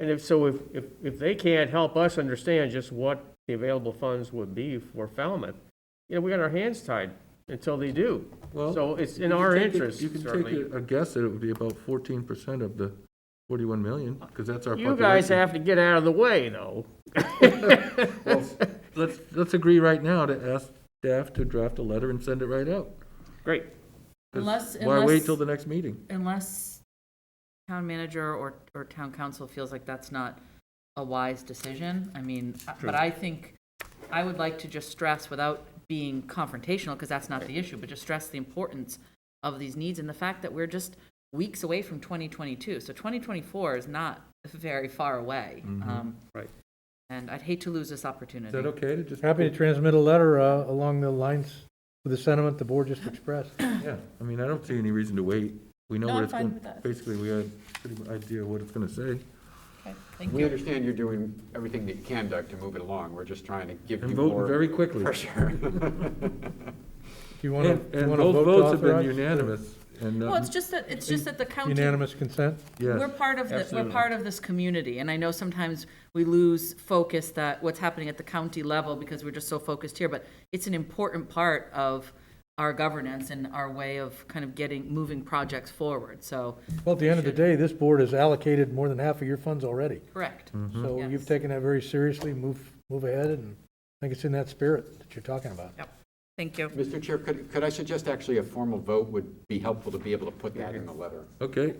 And if, so if, if, if they can't help us understand just what the available funds would be for Falmouth, you know, we got our hands tied until they do. Well, So it's in you can our take a- interest, You can certainly. take a- a guess that it would be about fourteen percent of the forty-one million, because that's our You population. guys have to get out of the way, though. Well, Let's, let's agree right now to ask staff to draft a letter and send it right out. Great. 'Cause Unless- Why wait unless- till the next meeting? Unless town manager or, or town council feels like that's not a wise decision, I mean, uh, but I think, I would like to just stress without being confrontational, because that's not the issue, but just stress the importance of these needs and the fact that we're just weeks away from 2022. So 2024 is not very far away. Um, Right. And I'd hate to lose this opportunity. Mm-hmm. Is that okay to just? Happy to transmit a letter uh, along the lines of the sentiment the board just expressed. Yeah, I mean, I don't see any reason to wait. We know No, what I'm it's fine going, with that. basically, we had a pretty good idea of what it's gonna say. Okay, Thank We you. understand you're doing everything that you can, Doug, to move it along. We're just trying to give you And more voting very quickly. pressure. Do And, you want to, and want to both vote to votes have been authorize? unanimous, and, Well, um, it's just that, it's just that the county Unanimous consent? yes. We're part of, the- we're Absolutely. part of this community, and I know sometimes we lose focus that what's happening at the county level because we're just so focused here, but it's an important part of our governance and our way of kind of getting, moving projects forward, so, Well, at the end of the day, this board has allocated more than half of your funds already. correct. Mm-hmm. So Yes. you've taken that very seriously, move, move ahead, and I think it's in that spirit that you're talking about. Yep. Thank you. Mr. Chair, could, could I suggest actually a formal vote would be helpful to be able to put that in the letter? Okay.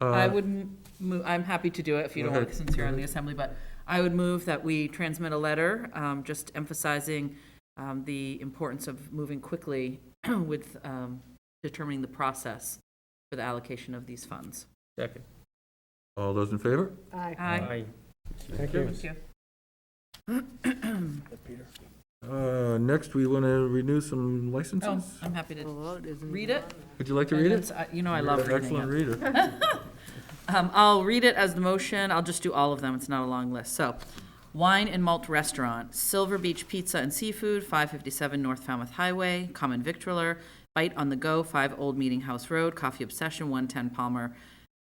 I Uh, would m- move, I'm happy to do it if you don't want, ahead, it, since you're on the assembly, but I would move that we transmit a letter, um, just emphasizing, um, the importance of moving quickly with, um, determining the process for the allocation of these funds. Second. All those in favor? Aye. Thank you. Thank you. Uh, next, we want to renew some Oh, licenses. I'm happy to read it. Would you like to read And it? it's- uh, You know, Oh. I love You're an reading it. Excellent reader. Um, I'll read it as the motion. I'll just do all of them. It's not a long list. So, Wine and Malt Restaurant, Silver Beach Pizza and Seafood, 557 North Falmouth Highway, Common Victualler, Bite on the Go, 5 Old Meeting House Road, Coffee Obsession, 110 Palmer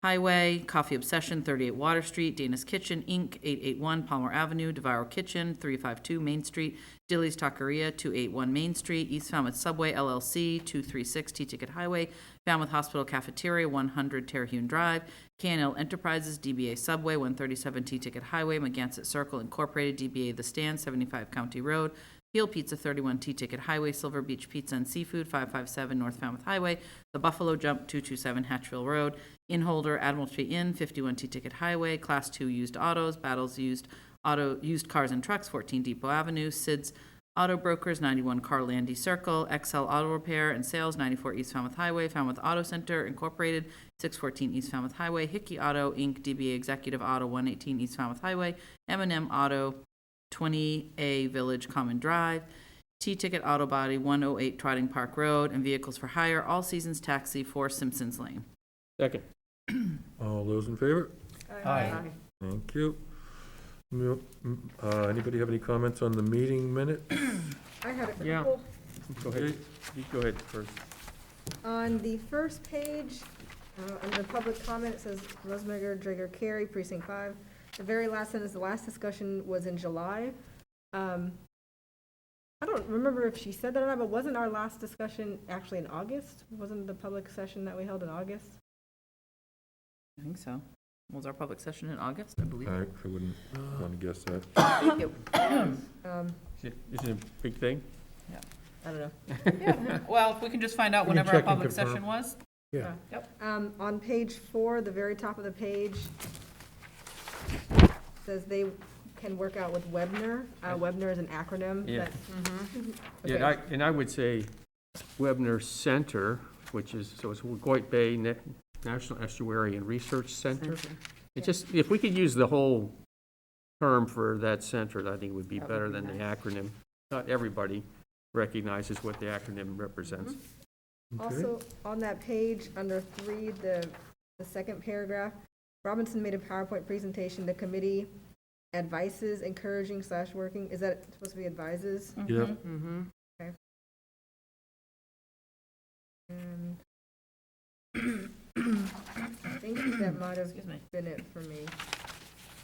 Highway, Coffee Obsession, 38 Water Street, Dana's Kitchen, Inc., 881 Palmer Avenue, Devour Kitchen, 352 Main Street, Dilly's Taqueria, 281 Main Street, East Falmouth Subway LLC, 236 T-Ticket Highway, Falmouth Hospital Cafeteria, 100 Terhune Drive, KNL Enterprises, DBA Subway, 137 T-Ticket Highway, Magansett Circle Incorporated, DBA The Stand, 75 County Road, Peel Pizza, 31 T-Ticket Highway, Silver Beach Pizza and Seafood, 557 North Falmouth Highway, The Buffalo Jump, 227 Hatchville Road, Inholder, Admiralty Inn, 51 T-Ticket Highway, Class 2 Used Autos, Battles Used Auto, Used Cars and Trucks, 14 Depot Avenue, Sid's Auto Brokers, 91 Carlandy Circle, XL Auto Repair and Sales, 94 East Falmouth Highway, Falmouth Auto Center Incorporated, 614 East Falmouth Highway, Hickey Auto, Inc., DBA Executive Auto, 118 East Falmouth Highway, m and M Auto, 20A Village Common Drive, T-Ticket Auto Body, 108 Trotting Park Road, and Vehicles for Hire, All Seasons Taxi, 4 Simpsons Lane. Second. All those in favor? Thank you. Mu- m- uh, Anybody have any comments on the meeting minute? I had a Yeah. couple. Go ahead. You go ahead first. On the first page, uh, under public comment, it says Rosemager, Drager, Carey, precinct five. The very last sentence, the last discussion was in July. Um, I don't remember if she said that or not, but wasn't our last discussion actually in August? Wasn't the public session that we held in August? I think so. Was our public session in August, I believe? I I wouldn't want to guess that. Um, Is it- Is it a big thing? I don't know. Well, if we can just find out We can whenever our check and public confirm. session was. Yeah. Yep. Um, on page four, the very top of the page, says they can work out with Webner. Uh, Webner is an acronym. Yeah. but- Yeah, and Okay. I, and I would say Webner Center, which is, so it's Wacoit Bay Na- National Estuary and Research Center. It just, if we could use the whole term for that center, I think it would be That would better be than the acronym. Not everybody recognizes what the acronym represents. Okay. Also, on that page, under three, the, the second paragraph, Robinson made a PowerPoint presentation, the committee advises encouraging slash working, is that supposed to be advises? Mm-hmm. Yeah. And I think that might have Excuse me. been it for me.